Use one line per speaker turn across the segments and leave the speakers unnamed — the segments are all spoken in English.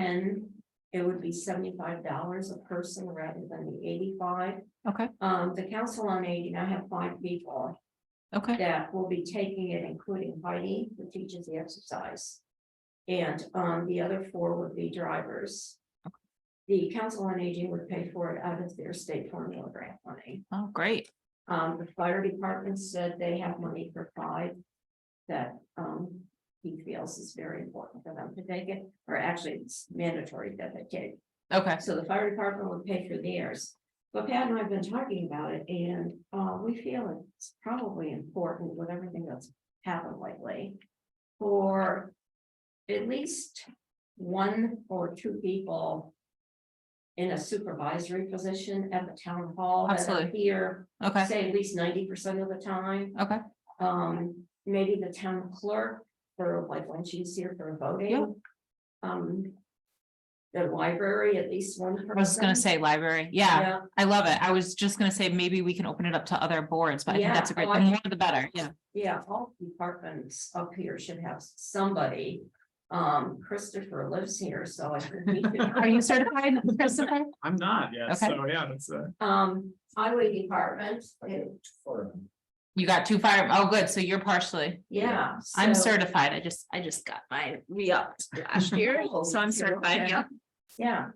ten, it would be seventy-five dollars a person rather than the eighty-five.
Okay,
Um, the Council on Aging, I have five people
okay,
that will be taking it, including Heidi, who teaches the exercise. And, um, the other four would be drivers. The Council on Aging would pay for it out of their state formula grant money.
oh, great,
Um, the fire department said they have money for five. That, um, he feels is very important for them to take it, or actually it's mandatory that they take.
okay,
So the fire department would pay for theirs. But Pat and I have been talking about it and, uh, we feel it's probably important with everything that's happened lately. For at least one or two people. In a supervisory position at the town hall. that are
Absolutely.
Here
okay,
say at least ninety percent of the time.
okay,
Um, maybe the town clerk for like when she's here for
Yeah.
voting. Um. The library, at least one person.
I was gonna say library, yeah, I love it, I was just gonna say, maybe we can open it up to other boards, but I think
Yeah,
that's a great,
oh,
the
I-
more the better, yeah.
Yeah, all departments up here should have somebody. Um, Christopher lives here, so I think we could.
Are you certified, Christopher?
I'm not, yeah,
Okay.
so, yeah, that's uh
Um, highway department,
You got two fire, oh, good, so you're partially,
yeah.
I'm
so-
certified, I just, I just got my re-upped last year, Oh, so I'm certified, yeah.
Yeah.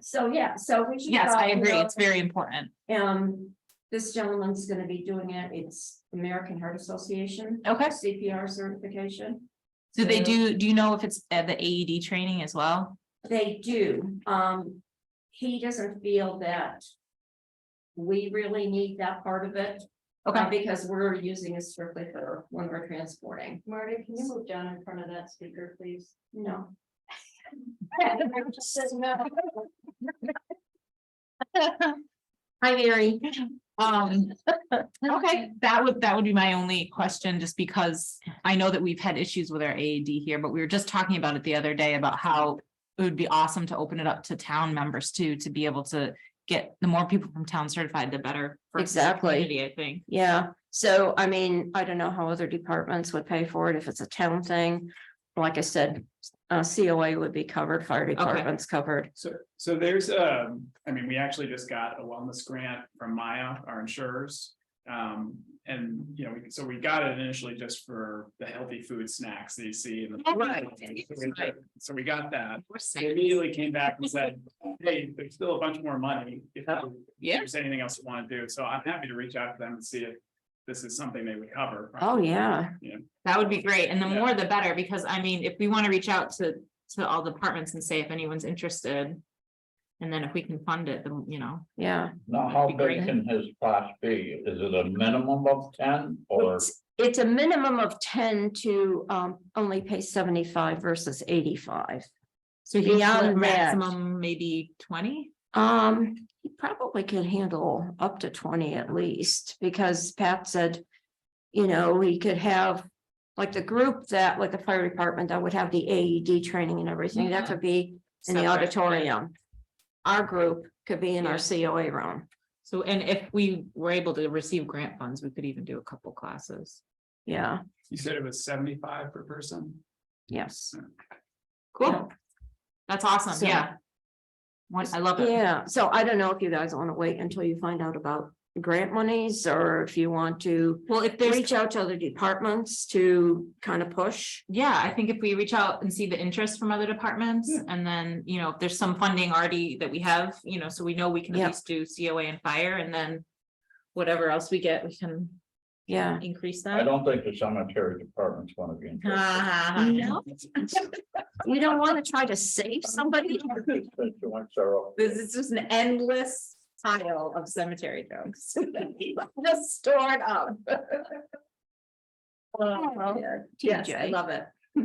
So, yeah, so we should.
Yes, I
probably
agree,
go-
it's very important,
Um, this gentleman's gonna be doing it, it's American Heart Association.
okay,
CPR certification,
do they
So-
do, do you know if it's at the AED training as well?
they do, um, he doesn't feel that. We really need that part of it, uh,
Okay,
because we're using it strictly for when we're transporting. Marty, can you move down in front of that speaker, please? No.
Hi, Mary. Um, okay, that would, that would be my only question, just because I know that we've had issues with our AED here, but we were just talking about it the other day about how it would be awesome to open it up to town members too, to be able to get the more people from town certified, the better. for the
Exactly.
community, I think.
Yeah, so I mean, I don't know how other departments would pay for it, if it's a town thing. Like I said, uh, COA would be covered, fire
department's
covered.
So, so there's, um, I mean, we actually just got a wellness grant from Maya, our insurers. Um, and, you know, we- so we got it initially just for the healthy food snacks that you see. in the-
Right.
So we got that. They immediately came back and said, hey, there's still a bunch more money. If you- if
Oh, Yeah,
there's anything else you want to do, so I'm happy to reach out to them and see if this is something they would cover.
Oh, yeah,
that would be great. And the
Yeah.
more the better, because I mean, if we want to reach out to, to all departments and say if anyone's interested. And then if we can fund it, then, you know.
yeah.
Now,
That'd
how
be great.
big can his class be? Is it a minimum of ten or?
It's- It's a minimum of ten to um only pay seventy-five versus eighty-five.
So he
Beyond that-
maximum maybe twenty?
Um, he probably could handle up to twenty at least, because Pat said. You know, we could have, like the group that, like the fire department that would have the AED training and everything, that
Mhm.
could be in the
Separate.
auditorium. Our group could be in our
Yeah.
COA room,
So, and if we were able to receive grant funds, we could even do a couple classes.
yeah,
You said it was seventy-five per person?
yes.
Cool. That's awesome,
So-
yeah. One, I love it.
Yeah, so I don't know if you guys want to wait until you find out about grant monies, or if you want to.
Well, if there's,
Reach out to other departments to kind of push.
yeah, I think if we reach out and see the interest from other departments,
Yeah.
and then, you know, if there's some funding already that we have, you know, so we know we can
Yeah.
at least do COA and fire, and then whatever else we get, we can
Yeah.
increase
I
that.
don't think the cemetery department's gonna be.
Ha,
interested.
ha, ha.
Uh, You don't want to try to save somebody?
Constituents are all-
This is just an endless pile of cemetery jokes. Just stored up.
Oh,
Yes, I
TJ.
love it.
Yeah,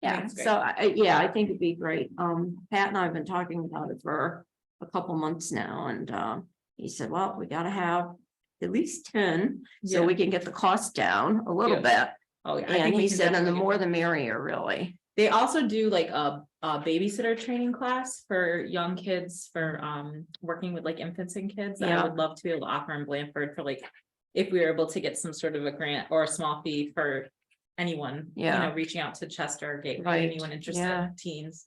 That's great.
so I, yeah, I think it'd be great. Um, Pat and I have been talking about it for a couple months now and, uh, he said, well, we gotta have at least ten, so
Yeah.
we can get the cost down a little bit.
Oh, yeah. I think
And
we
he
can
said, and the
definitely do
more
that.
the merrier, really.
They also do like a, a babysitter training class for young kids for, um, working with like infants and kids. I
Yeah.
would love to be able to offer in Blanford for like, if we were able to get some sort of a grant or a small fee for anyone, you
Yeah.
know, reaching out to Chester, Gateway,
Right,
anyone interested,
yeah.
teens.